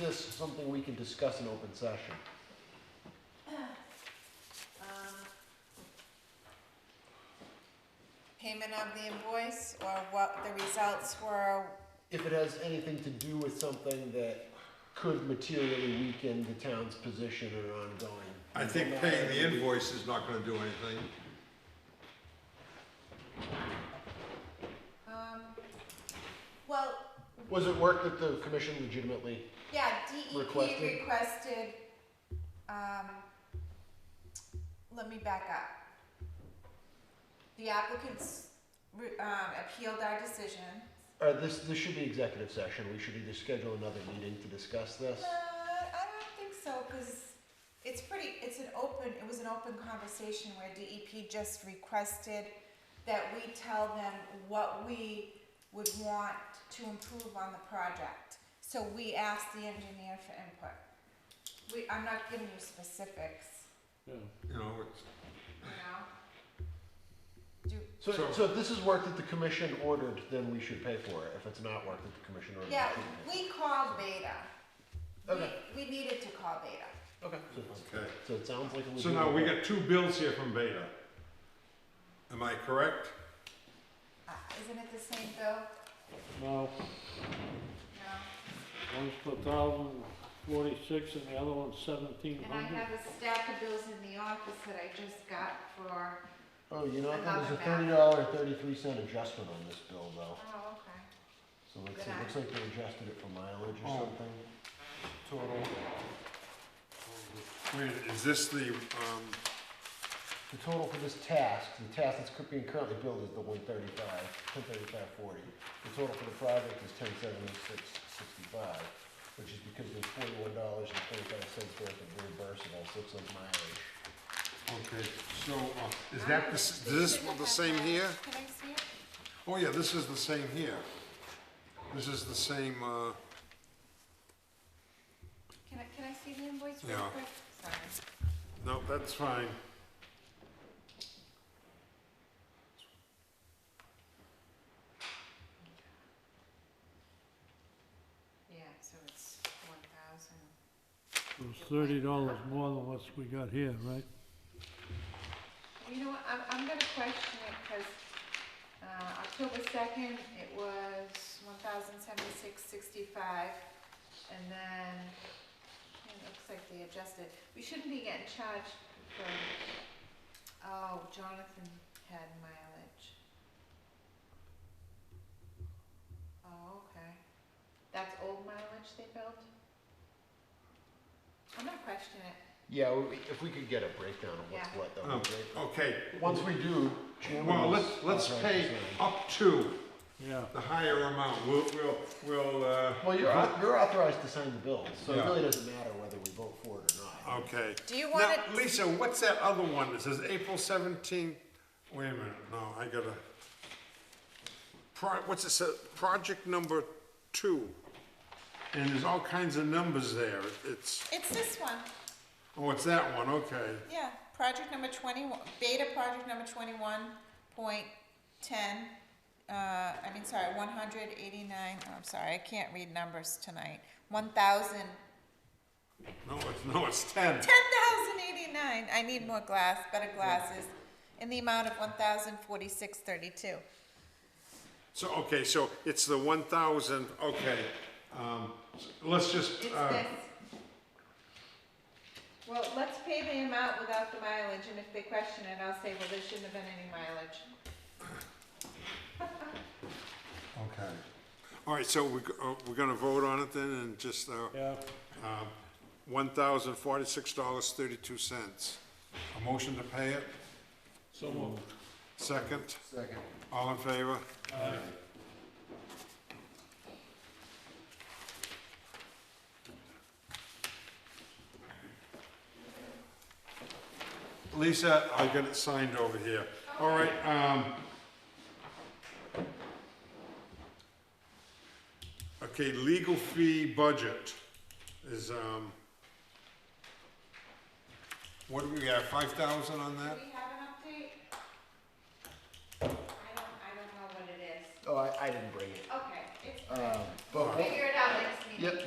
this something we can discuss in open session? Um, Payment of the invoice or what the results were, If it has anything to do with something that could materially weaken the town's position or ongoing. I think paying the invoice is not gonna do anything. um, well, Was it work that the commission legitimately, yeah, DEP Requested? requested, um, let me back up. The applicants, re- um, appealed our decision. or Uh, this, this should be executive session, we should either schedule another meeting to discuss this. Uh, I don't think so, cause it's pretty, it's an open, it was an open conversation where DEP just requested that we tell them what we would want to improve on the project. So we asked the engineer for input. We, I'm not giving you specifics, You know, it's, you know? Do, So, So- so if this is work that the commission ordered, then we should pay for it, if it's not work that the commission ordered. we yeah, shouldn't pay. we called Beta. Okay. We, we needed to call Beta. So it's- okay. So it sounds like a So legitimate. now we work. got two bills here from Beta. Am I correct? Uh, isn't it the same bill? No, No. one's for thousand forty-six and the other one's seventeen And I hundred. have a stack of bills in the office that I just got for, Oh, you know, I thought it was a Another thirty dollar, thirty-three cent adjustment on this bill though, oh, okay. so let's see, it looks like they adjusted it for mileage or Oh. something. Total. Wait, is this the, um, The total for this task, the task that's cur- being currently billed is the one thirty-five, ten thirty-five forty. The total for the project is ten seventy-six sixty-five, which is because there's forty-one dollars and twenty-five cents worth of reimbursable, so it's like mileage. okay, so, uh, is that the, s- is this the same here? Can I see it? Oh, yeah, this is the same here. This is the same, uh, Can I, can I see the invoice real Yeah. quick? Sorry. no, that's fine. Yeah, so it's one thousand. It was thirty dollars more than what we got here, right? You know what, I'm, I'm gonna question it, cause, uh, October second, it was one thousand seventy-six sixty-five. And then, it looks like they adjusted, we shouldn't be getting charged for, oh, Jonathan had mileage. Oh, okay, that's old mileage they billed? I'm gonna question it, Yeah, we- if we could get a breakdown of what's Yeah. what, that Oh, would be great. Okay, Um, Once we do, Jim well, was let's, let's pay authorized to sign. up to Yeah. the higher amount. We'll, we'll, we'll, uh, Well, you're, au- you're authorized to sign the bills, so it Yeah. Uh, really doesn't matter whether we vote for it or not. okay. do you Now, wanna? Lisa, what's that other one that says April seventeenth? Wait a minute, no, I gotta. Pro, what's it say, project number two? And there's all kinds of numbers there, it's, It's this one. oh, it's that one, okay. Yeah, project number twenty-one, beta project number twenty-one point ten, uh, I mean, sorry, one hundred eighty-nine, oh, I'm sorry, I can't read numbers tonight. One thousand, No, it's, no, it's ten. ten thousand eighty-nine, I need more glass, better glasses, in the amount of one thousand forty-six thirty-two. So, okay, so it's the one thousand, okay, um, s- let's just, It's uh, this. Well, let's pay the amount without the mileage, and if they question it, I'll say, well, there shouldn't have been any mileage. okay. All right, so we, g- uh, we're gonna vote on it then and just, uh, Yeah, one thousand forty-six dollars thirty-two cents. A motion to pay it? so moved. Second? Second. All in favor? Lisa, I got it signed over here. All right, um. Okay, legal fee budget is, um. What do we got, five thousand on Do that? we have an update? I don't, I don't know what it is. Oh, I, I didn't bring it. Okay, it's, Um, we'll but figure it out next meeting. Yep,